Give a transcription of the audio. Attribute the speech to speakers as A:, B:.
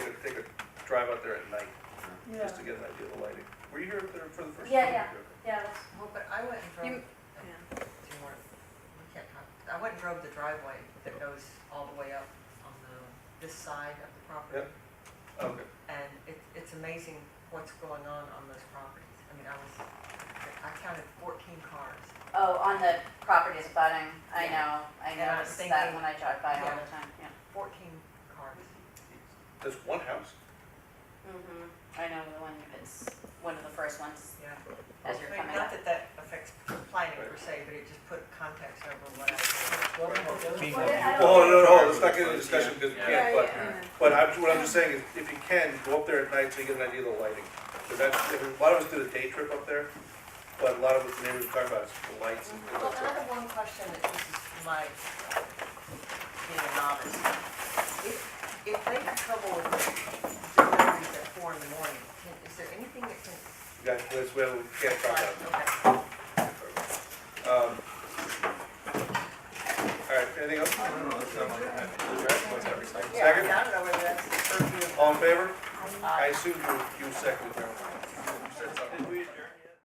A: drive out there at night,
B: Yeah,
A: just to get an idea of the lighting. Were you here there for the first time?
C: Yeah, Yeah, that's,
D: Well, but I went and drove,
E: You-
D: do you want, we can't talk, I went and drove the driveway that goes all the way up on the, this side of the property.
A: Okay,
D: And it, it's amazing what's going on on those properties. I mean, I was, I counted fourteen cars.
C: oh, on the properties abutting, I know, I
D: Yeah, I was
C: notice that
D: thinking-
C: when I drive by all the
D: Yeah.
C: time, yeah.
D: Fourteen cars.
A: that's one house?
C: Mm-hmm. I know the one, it's one of the first ones
D: Yeah.
C: as you're
D: I mean,
C: coming
D: Not
C: up.
D: that that affects planning per se, but it just put context over what I.
F: Being
E: Well, I don't-
A: Oh, no, no, let's not get into discussion because we
E: Yeah,
A: can't, but,
E: yeah.
A: but I'm, what I'm just saying is, if you can, go up there at night so you get an idea of the lighting. Because that's, a lot of us did a day trip up there, but a lot of us, the neighbors talk about is the lights and things
D: Well,
A: like that.
D: another one question that this is my, being a novice. If, if they have trouble with deliveries at four in the morning, can, is there anything that can?
A: You guys, that's where we can't talk about it.
D: Okay.
A: Um, All right, anything else?
D: Yeah, I mean,
A: Second,
D: I don't know whether that's curfew.
A: all in favor?
D: Uh,
A: I assume you, you second. Did we adjourn?